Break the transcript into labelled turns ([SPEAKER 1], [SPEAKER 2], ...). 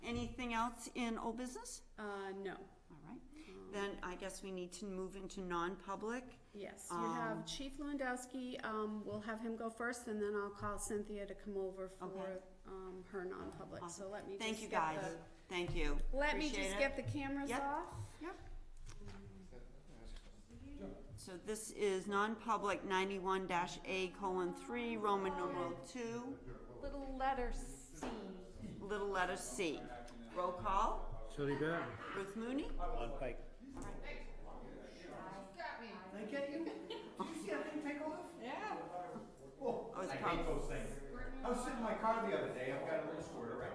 [SPEAKER 1] Anything else in old business?
[SPEAKER 2] Uh, no.
[SPEAKER 1] All right, then I guess we need to move into non-public.
[SPEAKER 2] Yes, you have
[SPEAKER 1] Um,
[SPEAKER 2] Chief Lewandowski, um, we'll have him go first, and then I'll call Cynthia to come over for,
[SPEAKER 1] Okay.
[SPEAKER 2] um, her non-public, so let me just
[SPEAKER 1] Thank you,
[SPEAKER 2] get
[SPEAKER 1] guys.
[SPEAKER 2] the-
[SPEAKER 1] Thank you.
[SPEAKER 2] Let me
[SPEAKER 1] Appreciate
[SPEAKER 2] just
[SPEAKER 1] it.
[SPEAKER 2] get the cameras
[SPEAKER 1] Yep.
[SPEAKER 2] off.
[SPEAKER 1] Yep. So this is non-public ninety-one dash A colon three, Roman numeral two,
[SPEAKER 3] Little letter C.
[SPEAKER 1] little letter C. Roll call,
[SPEAKER 4] Shirley Bair,
[SPEAKER 1] Ruth Mooney?
[SPEAKER 4] on Pike.
[SPEAKER 1] Oh, it's probably, Oh,
[SPEAKER 5] I was sitting in my car the other day, I've got a little squirter right